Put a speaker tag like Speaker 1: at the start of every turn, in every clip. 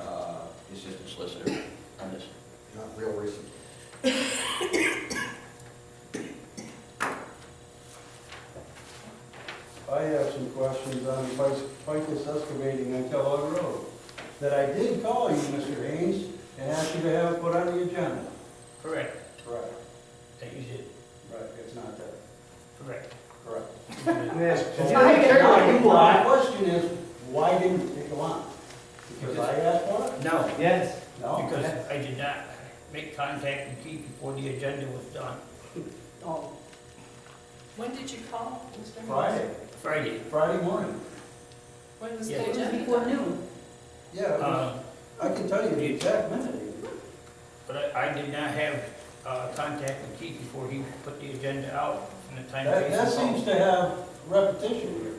Speaker 1: uh,
Speaker 2: that I did call you, Mr. Haynes, and ask you to have it put on the agenda.
Speaker 3: Correct,
Speaker 2: Right,
Speaker 3: that you did,
Speaker 2: right, it's not that,
Speaker 3: correct.
Speaker 2: correct.
Speaker 4: I heard
Speaker 2: Now,
Speaker 4: it.
Speaker 2: My question is, why didn't it go on? Because I asked for it?
Speaker 3: No,
Speaker 4: Yes.
Speaker 2: No?
Speaker 3: because I did not make contact with Keith before the agenda was done,
Speaker 4: Oh,
Speaker 2: No,
Speaker 5: When did you call, Mr. Haynes?
Speaker 2: Friday,
Speaker 3: Friday.
Speaker 2: Friday morning.
Speaker 5: When was
Speaker 3: Yeah.
Speaker 5: the
Speaker 4: It was
Speaker 5: agenda?
Speaker 4: before
Speaker 5: done?
Speaker 4: noon.
Speaker 2: Yeah, it was-
Speaker 3: Uh,
Speaker 2: I can tell you the exact minute.
Speaker 3: But I I did not have uh, contact with Keith before he put the agenda out in the time.
Speaker 2: That, that
Speaker 3: Jason called.
Speaker 2: seems to have repetition here.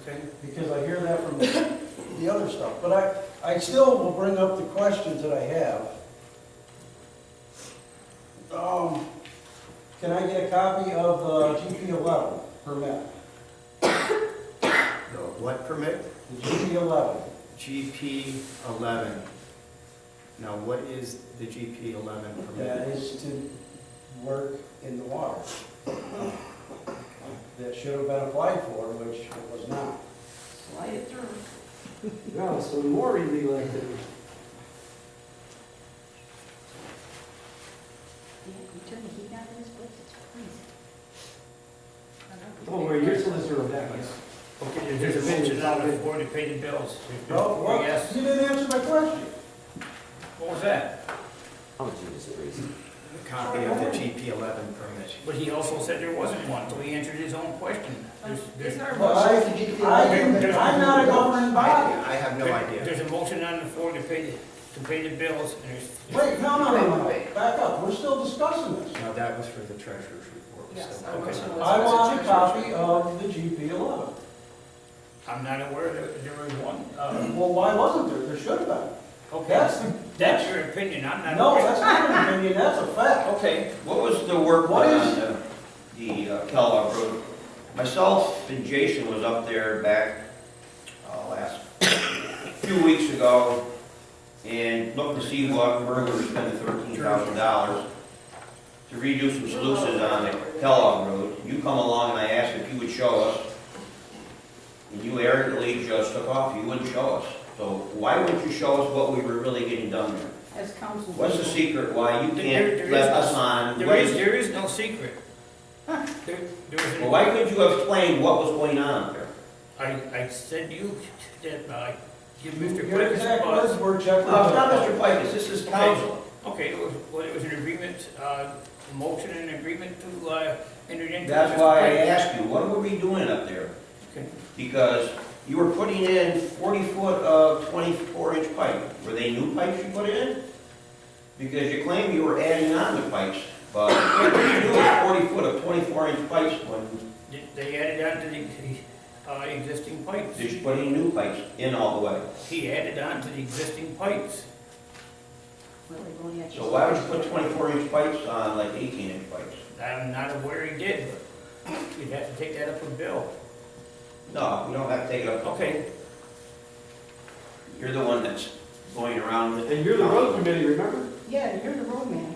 Speaker 3: Okay,
Speaker 2: because I hear that from the other stuff. But I, I still will bring up the questions that I have. Um, can I get a copy of the GP eleven permit?
Speaker 6: The what permit?
Speaker 2: The GP eleven,
Speaker 6: GP eleven. Now, what is the GP eleven
Speaker 2: that
Speaker 6: permit?
Speaker 2: is to work in the water. That should have been applied for, which it was not.
Speaker 4: Slide it through.
Speaker 7: No, so more illegal activity.
Speaker 4: Yeah, you turn the heat on in this place, it's freezing.
Speaker 7: Don't worry, your oh, solicitor will back us.
Speaker 3: okay, there's a mention out of board to pay the bills.
Speaker 2: No, what?
Speaker 3: Yes,
Speaker 2: You didn't answer my question.
Speaker 3: what was that?
Speaker 6: A copy of the GP eleven permit.
Speaker 3: But he also said there wasn't one, so he answered his own question. There's-
Speaker 5: Is
Speaker 3: there's-
Speaker 5: there a
Speaker 2: Well, I,
Speaker 5: motion?
Speaker 2: I, I'm not a governing body.
Speaker 6: I I have no
Speaker 3: there-
Speaker 6: idea.
Speaker 3: There's a motion on the floor to pay, the- to pay the bills, and there's.
Speaker 2: Wait, no, no, no, no, back up, we're still discussing this.
Speaker 6: No, that was for the treasurer's report. so-
Speaker 5: Yes, I
Speaker 6: Okay.
Speaker 5: wish it was-
Speaker 2: I want a copy of the GP eleven.
Speaker 3: I'm not aware that there was one. Uh,
Speaker 2: Well, why wasn't there? There should have been.
Speaker 3: Okay,
Speaker 2: That's the,
Speaker 3: that's your opinion, I'm not.
Speaker 2: no,
Speaker 3: aware.
Speaker 2: that's not an opinion, that's a fact.
Speaker 1: Okay, what was the work
Speaker 2: What
Speaker 1: done
Speaker 2: is-
Speaker 1: on the, the uh, Kellogg Road? Myself and Jason was up there back, uh, last, few weeks ago, and looked to see what burglar spent thirteen thousand dollars to redo some sluices on Kellogg Road. You come along and I asked if you would show us, and you arrogantly just took off, you wouldn't show us. So why wouldn't you show us what we were really getting done there?
Speaker 4: As council.
Speaker 1: What's the secret why you
Speaker 3: There- there
Speaker 1: can't
Speaker 3: is
Speaker 1: let
Speaker 3: no-
Speaker 1: us on?
Speaker 3: There
Speaker 1: what
Speaker 3: is,
Speaker 1: is-
Speaker 3: there is no secret. There, there is.
Speaker 1: Well, why couldn't you explain what was going on there?
Speaker 3: I, I said you, that, uh, give Mr.
Speaker 2: Your
Speaker 3: Quick uh,
Speaker 2: exact words were
Speaker 1: No,
Speaker 2: Jeff.
Speaker 1: it's Uh, not Mr. Pikes, this is council.
Speaker 3: Okay, it was, well, it was an agreement, uh, motion and agreement to, uh, enter into.
Speaker 1: That's why I asked you, what were we doing up there?
Speaker 3: Okay.
Speaker 1: Because you were putting in forty foot of twenty-four inch pipe. Were they new pipes you put in? Because you claim you were adding on the pipes, but what you do is forty foot of twenty-four inch pipes when,
Speaker 3: They- They added on to the, the, uh, existing pipes.
Speaker 1: did you put in new pipes in all the way?
Speaker 3: He added on to the existing pipes.
Speaker 1: So why would you put twenty-four inch pipes on like eighteen inch pipes?
Speaker 3: I'm not aware he did, but you'd have to take that up with Bill.
Speaker 1: No, we don't have to take it up.
Speaker 3: Okay,
Speaker 1: You're the one that's going around with it. Um,
Speaker 7: And you're the road committee, remember?
Speaker 4: Yeah, you're the road man.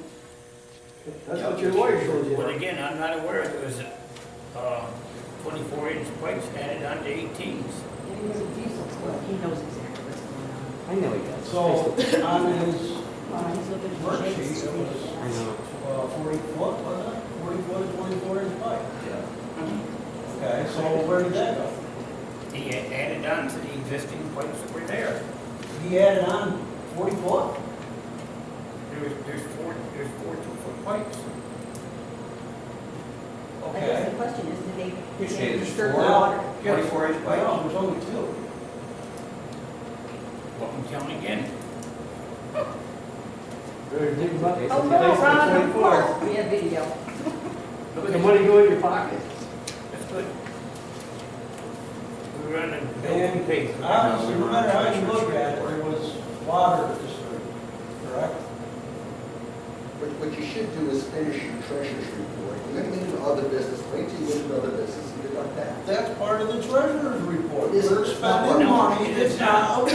Speaker 7: That's what your lawyer told you.
Speaker 3: but again, I'm not aware if it was, uh, twenty-four inch pipes added on to eighteens.
Speaker 4: And he was a diesel, so he knows exactly what's going
Speaker 7: I know he does.
Speaker 2: So, on his,
Speaker 4: on. Uh, he's looking for
Speaker 2: Worksheet,
Speaker 4: shakes.
Speaker 2: it was-
Speaker 7: I know.
Speaker 2: uh, forty foot, wasn't it? Forty foot of twenty-four inch pipe. Okay, so where did that go?
Speaker 3: He had added on to the existing pipes that were there.
Speaker 2: He added on forty foot?
Speaker 3: There was, there's four, there's four two-foot pipes.
Speaker 4: I guess
Speaker 2: Okay.
Speaker 4: the question is, did they,
Speaker 1: You
Speaker 4: did
Speaker 1: say
Speaker 4: they
Speaker 1: there's
Speaker 4: disturb the
Speaker 1: four?
Speaker 4: water?
Speaker 1: Twenty-four inch
Speaker 2: Well,
Speaker 1: pipe?
Speaker 2: there's only two.
Speaker 3: What I'm counting again,
Speaker 7: Better dig them up.
Speaker 4: Oh, no, Ron, of course, we have video.
Speaker 7: Put the money go in your pocket.
Speaker 3: that's good. We were on the building
Speaker 2: And
Speaker 3: page.
Speaker 2: obviously, no matter how you look at it, there was water disturbed, correct?
Speaker 8: What, what you should do is finish your treasurer's report. You're gonna get into other business, wait till you get into other business and deduct that.
Speaker 2: That's part of the treasurer's report.
Speaker 8: Is it?
Speaker 2: We're spending money that's not